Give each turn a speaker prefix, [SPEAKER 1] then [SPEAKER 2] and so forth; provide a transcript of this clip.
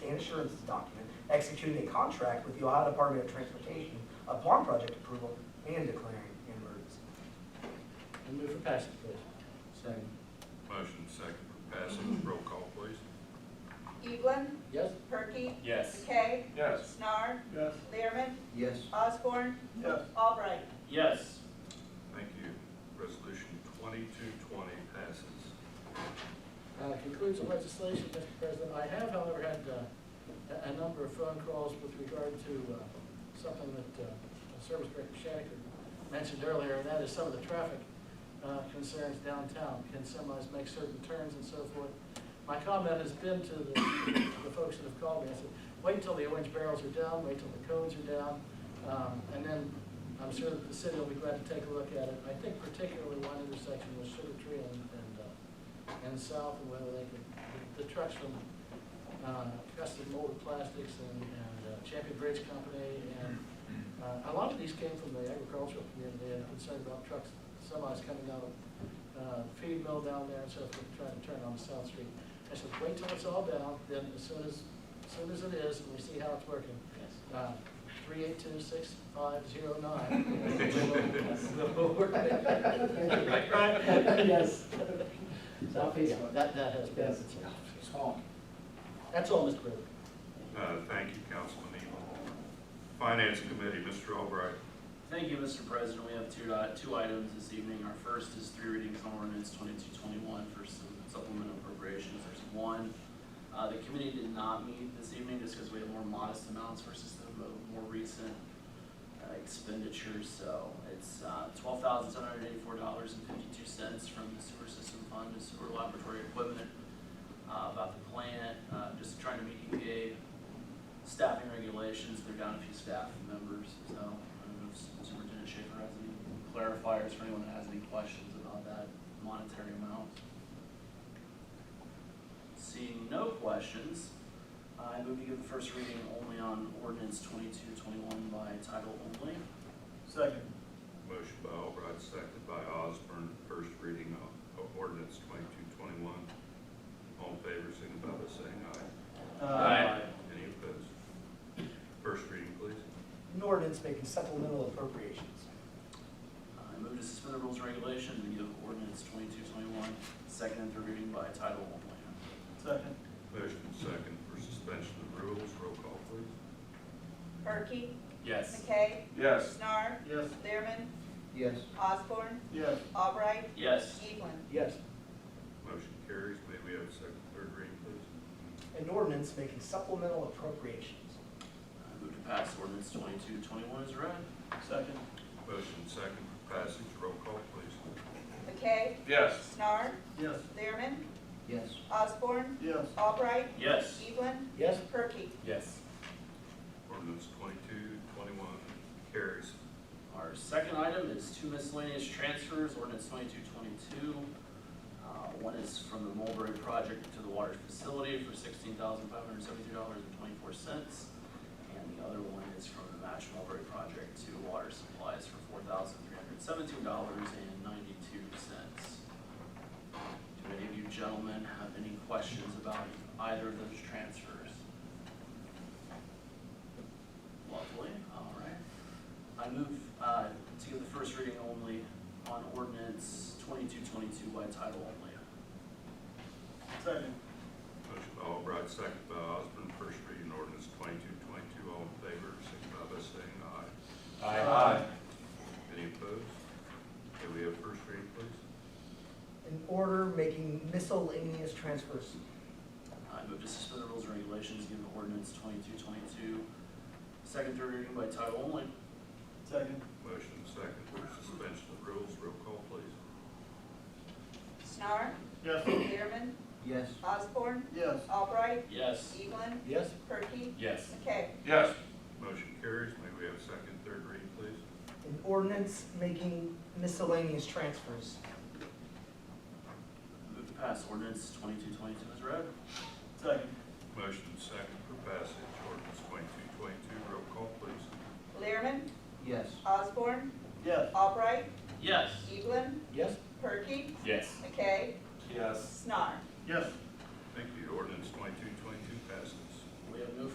[SPEAKER 1] insurance document, executing a contract with the Ohio Department of Transportation upon project approval and declaring an emergency.
[SPEAKER 2] I move for passage, please. Second.
[SPEAKER 3] Motion second for passage, roll call please.
[SPEAKER 4] Eblin,
[SPEAKER 2] Yes?
[SPEAKER 4] Perky,
[SPEAKER 5] Yes.
[SPEAKER 4] McKay,
[SPEAKER 3] Yes.
[SPEAKER 4] Snar,
[SPEAKER 2] Yes.
[SPEAKER 4] Learman,
[SPEAKER 2] Yes.
[SPEAKER 4] Osborne,
[SPEAKER 2] Yes.
[SPEAKER 4] Albright.
[SPEAKER 5] Yes.
[SPEAKER 3] Thank you. Resolution twenty-two twenty passes.
[SPEAKER 2] Uh, concludes the legislation, Mr. President. I have, however, had, uh, a, a number of phone calls with regard to, uh, something that, uh, Service Director Shattuck mentioned earlier, and that is some of the traffic, uh, concerns downtown. Can semis make certain turns and so forth? My comment has been to the, the folks that have called me, I said, wait till the orange barrels are down, wait till the cones are down, um, and then I'm sure that the city will be glad to take a look at it. I think particularly one intersection was Sugar Tree and, and, uh, and south, and whether they could, the trucks from uh, Custom Molded Plastics and and, uh, Champion Bridge Company, and uh, a lot of these came from the agricultural community, and concerned about trucks, semis coming out of uh, feed mill down there, and so forth, trying to turn on South Street. I said, wait till it's all down, then as soon as, as soon as it is, and we see how it's working, Uh, three eight two six five zero nine.
[SPEAKER 6] Yes. Southeast one.
[SPEAKER 2] That, that has been.
[SPEAKER 6] Yes.
[SPEAKER 2] That's all, Mr. President.
[SPEAKER 3] Uh, thank you, Councilman Eagle. Finance Committee, Mr. Albright.
[SPEAKER 5] Thank you, Mr. President. We have two, uh, two items this evening. Our first is three readings on ordinance twenty-two twenty-one for some supplemental appropriations. There's one, uh, the committee did not meet this evening just because we have more modest amounts versus the mo- more recent uh, expenditures. So it's, uh, twelve thousand seven hundred eighty-four dollars and fifty-two cents from the sewer system fund to sewer laboratory equipment, uh, about the plant, uh, just trying to meet EPA staffing regulations, they're down a few staff members, so I don't know if Superintendent Schaefer has any clarifiers for anyone that has any questions about that monetary amount. Seeing no questions, I move to give the first reading only on ordinance twenty-two twenty-one by title only.
[SPEAKER 2] Second.
[SPEAKER 3] Motion by Albright, second by Osborne, first reading of of ordinance twenty-two twenty-one. All in favor, signify by saying aye. Any opposed? First reading, please.
[SPEAKER 1] An ordinance making supplemental appropriations.
[SPEAKER 5] I move to suspend the rules and regulations and give ordinance twenty-two twenty-one second and third reading by title only.
[SPEAKER 2] Second.
[SPEAKER 3] Motion second for suspension of rules, roll call please.
[SPEAKER 4] Perky,
[SPEAKER 5] Yes.
[SPEAKER 4] McKay,
[SPEAKER 3] Yes.
[SPEAKER 4] Snar,
[SPEAKER 2] Yes.
[SPEAKER 4] Learman,
[SPEAKER 6] Yes.
[SPEAKER 4] Osborne,
[SPEAKER 2] Yes.
[SPEAKER 4] Albright,
[SPEAKER 5] Yes.
[SPEAKER 4] Eblin.
[SPEAKER 2] Yes.
[SPEAKER 3] Motion carries, may we have a second, third reading please?
[SPEAKER 1] An ordinance making supplemental appropriations.
[SPEAKER 5] I move to pass ordinance twenty-two twenty-one as read.
[SPEAKER 2] Second.
[SPEAKER 3] Motion second for passage, roll call please.
[SPEAKER 4] McKay,
[SPEAKER 3] Yes.
[SPEAKER 4] Snar,
[SPEAKER 2] Yes.
[SPEAKER 4] Learman,
[SPEAKER 6] Yes.
[SPEAKER 4] Osborne,
[SPEAKER 2] Yes.
[SPEAKER 4] Albright,
[SPEAKER 5] Yes.
[SPEAKER 4] Eblin,
[SPEAKER 2] Yes.
[SPEAKER 4] Perky.
[SPEAKER 5] Yes.
[SPEAKER 3] Ordinance twenty-two, twenty-one carries.
[SPEAKER 5] Our second item is two miscellaneous transfers, ordinance twenty-two twenty-two. Uh, One is from the Mulberry Project to the water facility for sixteen thousand five hundred seventy-three dollars and twenty-four cents. And the other one is from the Match Mulberry Project to water supplies for four thousand three hundred seventeen dollars and ninety-two cents. Do any of you gentlemen have any questions about either of those transfers? Lovely, all right. I move uh, to give the first reading only on ordinance twenty-two twenty-two by title only.
[SPEAKER 2] Second.
[SPEAKER 3] Motion by Albright, second by Osborne, first reading ordinance twenty-two, twenty-two, all in favor, signify by saying aye.
[SPEAKER 2] Aye.
[SPEAKER 3] Any opposed? May we have first reading please?
[SPEAKER 1] An order making miscellaneous transfers.
[SPEAKER 5] I move to suspend the rules and regulations, give ordinance twenty-two twenty-two second, third reading by title only.
[SPEAKER 2] Second.
[SPEAKER 3] Motion second for suspension of rules, roll call please.
[SPEAKER 4] Snar,
[SPEAKER 2] Yes.
[SPEAKER 4] Learman,
[SPEAKER 6] Yes.
[SPEAKER 4] Osborne,
[SPEAKER 2] Yes.
[SPEAKER 4] Albright,
[SPEAKER 5] Yes.
[SPEAKER 4] Eblin,
[SPEAKER 2] Yes.
[SPEAKER 4] Perky,
[SPEAKER 5] Yes.
[SPEAKER 4] McKay.
[SPEAKER 3] Yes. Motion carries, may we have second, third reading please?
[SPEAKER 1] An ordinance making miscellaneous transfers.
[SPEAKER 5] Move to pass ordinance twenty-two twenty-two as read.
[SPEAKER 2] Second.
[SPEAKER 3] Motion second for passage, ordinance twenty-two twenty-two, roll call please.
[SPEAKER 4] Learman,
[SPEAKER 6] Yes.
[SPEAKER 4] Osborne,
[SPEAKER 2] Yes.
[SPEAKER 4] Albright,
[SPEAKER 5] Yes.
[SPEAKER 4] Eblin,
[SPEAKER 2] Yes.
[SPEAKER 4] Perky,
[SPEAKER 5] Yes.
[SPEAKER 4] McKay,
[SPEAKER 5] Yes.
[SPEAKER 4] Snar.
[SPEAKER 2] Yes.